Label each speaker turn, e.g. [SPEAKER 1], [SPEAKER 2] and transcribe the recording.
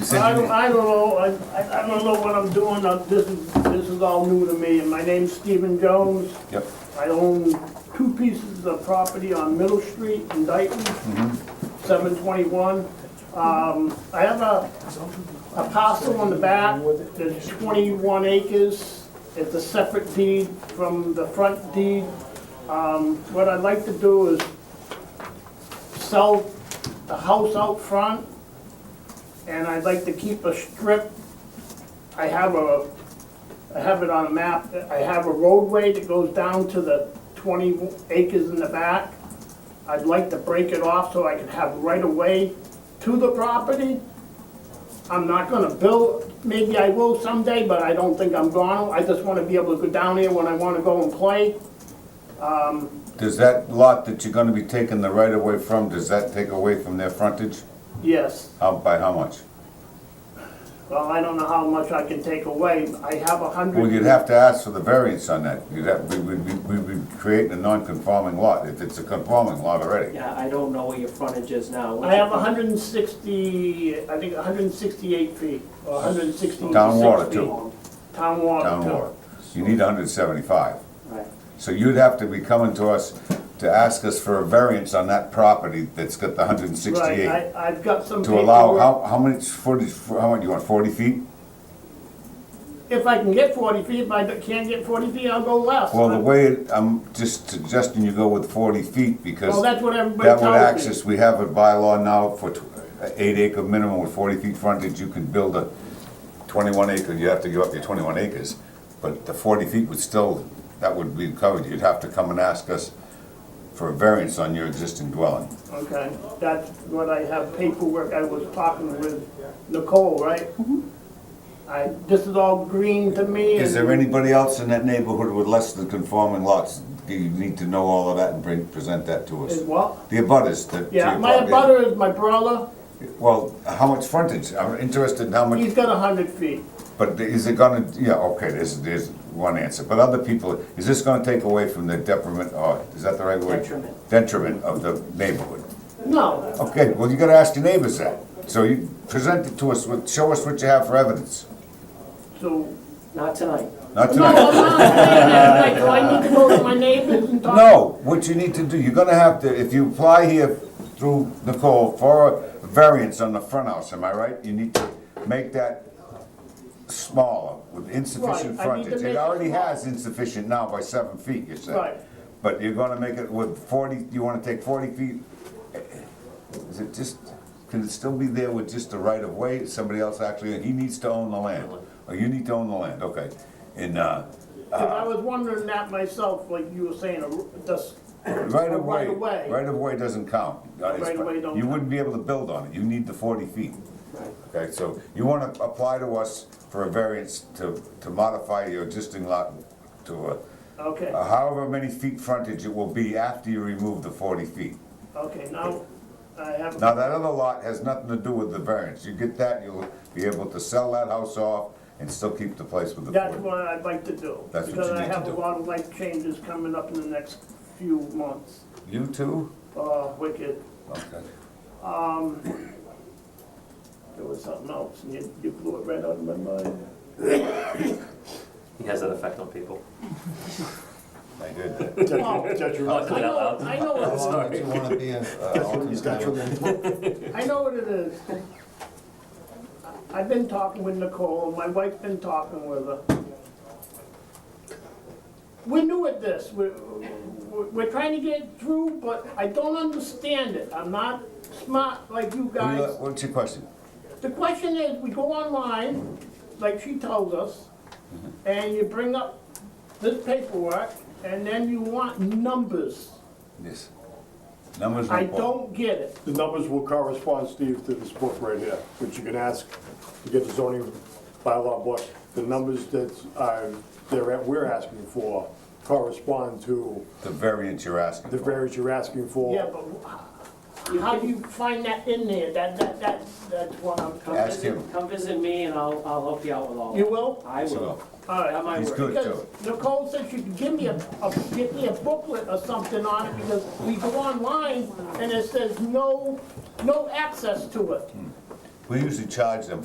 [SPEAKER 1] I
[SPEAKER 2] send
[SPEAKER 1] don't,
[SPEAKER 2] you.
[SPEAKER 1] I don't know, I- I, I don't know what I'm doing, Uh, this is, this is all new to me, and my name's Stephen Jones.
[SPEAKER 2] Yep.
[SPEAKER 1] I own two pieces of property on Middle Street in Dayton, seven twenty-one. Um, I have a, a parcel on the back that's twenty-one acres. It's a separate deed from the front deed. Um, what I'd like to do is sell the house out front, and I'd like to keep a strip. I have a, I have it on a map, I have a roadway that goes down to the twenty acres in the back. I'd like to break it off so I can have right of way to the property. I'm not gonna build, maybe I will someday, but I don't think I'm gonna. I just wanna be able to go down there when I wanna go and play.
[SPEAKER 2] Does that lot that you're gonna be taking the right of way from, does that take away from their frontage?
[SPEAKER 1] Yes.
[SPEAKER 2] How, by how much?
[SPEAKER 1] Well, I don't know how much I can take away. I have a
[SPEAKER 2] Well,
[SPEAKER 1] hundred,
[SPEAKER 2] you'd have to ask for the variance on that. You'd have, we would, be- we would create a non-conforming lot, if it's a conforming lot already.
[SPEAKER 3] Yeah, I don't know what your frontage is now. What's
[SPEAKER 1] I have
[SPEAKER 3] your-
[SPEAKER 1] hundred and sixty, I think hundred and sixty-eight feet, or hundred and sixty-six feet.
[SPEAKER 2] Town water, too.
[SPEAKER 1] Town water,
[SPEAKER 2] Town
[SPEAKER 1] too.
[SPEAKER 2] water. You need hundred seventy-five.
[SPEAKER 3] Right.
[SPEAKER 2] So you'd have to be coming to us to ask us for a variance on that property that's got the hundred and
[SPEAKER 1] Right,
[SPEAKER 2] sixty-eight.
[SPEAKER 1] I, I've got some
[SPEAKER 2] To allow,
[SPEAKER 1] paperwork.
[SPEAKER 2] how, how many, forty, how much, you want forty feet?
[SPEAKER 1] If I can get forty feet, if I can't get forty feet, I'll go less.
[SPEAKER 2] Well, the
[SPEAKER 1] I'm-
[SPEAKER 2] way, it- I'm just suggesting you go with forty feet because
[SPEAKER 1] Well, that's what everybody
[SPEAKER 2] that
[SPEAKER 1] tells me.
[SPEAKER 2] would access, we have a bylaw now for tw- a eight acre minimum with forty feet frontage, you can build a twenty-one acre, you have to give up your twenty-one acres. But the forty feet would still, that would be covered, you'd have to come and ask us for a variance on your existing dwelling.
[SPEAKER 1] Okay, that's what I have paperwork, I was talking with Nicole, right? I, this is all green to me
[SPEAKER 2] Is
[SPEAKER 1] and
[SPEAKER 2] there anybody else in that neighborhood with less than conforming lots? You need to know all of that and bring, present that to us.
[SPEAKER 1] is what?
[SPEAKER 2] The abutters that. to
[SPEAKER 1] Yeah,
[SPEAKER 2] your
[SPEAKER 1] my
[SPEAKER 2] property.
[SPEAKER 1] brother is my brother,
[SPEAKER 2] Well, how much frontage? I'm interested in how much,
[SPEAKER 1] he's got a hundred feet.
[SPEAKER 2] but is it gonna, yeah, okay, there's, there's one answer. But other people, is this gonna take away from the detriment, or is that the right word?
[SPEAKER 3] Detriment.
[SPEAKER 2] Detriment of the neighborhood.
[SPEAKER 1] No,
[SPEAKER 2] Okay, well, you gotta ask your neighbors that. So you present it to us, with- show us what you have for evidence.
[SPEAKER 1] so,
[SPEAKER 3] Not tonight.
[SPEAKER 2] Not
[SPEAKER 1] no, I'm
[SPEAKER 2] tonight.
[SPEAKER 1] not saying that, like, do I need to go to my neighbors and talk?
[SPEAKER 2] No, what you need to do, you're gonna have to, if you apply here through Nicole for a variance on the front house, am I right? You need to make that smaller with insufficient
[SPEAKER 1] Right, I need to
[SPEAKER 2] frontage.
[SPEAKER 1] make
[SPEAKER 2] It
[SPEAKER 1] it
[SPEAKER 2] already
[SPEAKER 1] smaller.
[SPEAKER 2] has insufficient now by seven feet, you said.
[SPEAKER 1] Right.
[SPEAKER 2] But you're gonna make it with forty, you wanna take forty feet? Is it just, can it still be there with just the right of way? Somebody else actually, he needs to own the land, or you need to own the land, okay. And, uh,
[SPEAKER 1] Cause I was wondering that myself, like you were saying, a- this,
[SPEAKER 2] Right of way,
[SPEAKER 1] Right of way.
[SPEAKER 2] right of way doesn't count. Uh, it's-
[SPEAKER 1] Right of way don't
[SPEAKER 2] You
[SPEAKER 1] count.
[SPEAKER 2] wouldn't be able to build on it, you need the forty feet.
[SPEAKER 3] Right.
[SPEAKER 2] Okay, so you wanna apply to us for a variance to, to modify your existing lot to
[SPEAKER 1] okay,
[SPEAKER 2] a, however many feet frontage it will be after you remove the forty feet.
[SPEAKER 1] okay, now, I have.
[SPEAKER 2] Now, that other lot has nothing to do with the variance, you get that, you'll be able to sell that house off and still keep the place with the
[SPEAKER 1] That's
[SPEAKER 2] forty.
[SPEAKER 1] what I'd like to do.
[SPEAKER 2] That's what you
[SPEAKER 1] Because I
[SPEAKER 2] need to
[SPEAKER 1] have a
[SPEAKER 2] do.
[SPEAKER 1] lot of life changes coming up in the next few months.
[SPEAKER 2] You too?
[SPEAKER 1] Uh, wicked,
[SPEAKER 2] Okay.
[SPEAKER 1] there was something else, and you, you blew it right out of my mind.
[SPEAKER 4] He has that effect on people.
[SPEAKER 2] I did that.
[SPEAKER 4] Oh, I
[SPEAKER 1] I
[SPEAKER 4] said it out
[SPEAKER 1] know,
[SPEAKER 4] loud.
[SPEAKER 1] I know what it
[SPEAKER 5] Do you want to be a, uh, alternate?
[SPEAKER 1] is, I know what it is. I've been talking with Nicole, and my wife's been talking with her. We're new at this, we're, we're we're trying to get through, but I don't understand it, I'm not smart like you
[SPEAKER 2] What do you-
[SPEAKER 1] guys.
[SPEAKER 2] What's your question?
[SPEAKER 1] The question is, we go online, like she told us, and you bring up this paperwork, and then you want numbers.
[SPEAKER 2] Yes. Numbers.
[SPEAKER 1] I
[SPEAKER 2] report.
[SPEAKER 1] don't get it.
[SPEAKER 6] The numbers will correspond, Steve, to this book right here, which you can ask to get the zoning bylaw book. The numbers that are, they're, at- we're asking for correspond to
[SPEAKER 2] The variance you're asking
[SPEAKER 6] the
[SPEAKER 2] for.
[SPEAKER 6] variance you're asking for.
[SPEAKER 1] Yeah, but wh- how do you find that in there? That, that, that, that's what I'm
[SPEAKER 3] Come
[SPEAKER 1] trying.
[SPEAKER 2] Ask
[SPEAKER 3] visit-
[SPEAKER 2] him.
[SPEAKER 3] Come visit me and I'll, I'll help you out with all
[SPEAKER 1] You
[SPEAKER 3] that.
[SPEAKER 1] will?
[SPEAKER 3] I
[SPEAKER 2] So,
[SPEAKER 3] will.
[SPEAKER 1] All
[SPEAKER 3] That
[SPEAKER 1] right.
[SPEAKER 3] might
[SPEAKER 2] He's
[SPEAKER 3] work.
[SPEAKER 2] good.
[SPEAKER 1] Because Nicole said she could give me a, a, get me a booklet or something on it, because we go online and it says no, no access to it.
[SPEAKER 2] We usually charge them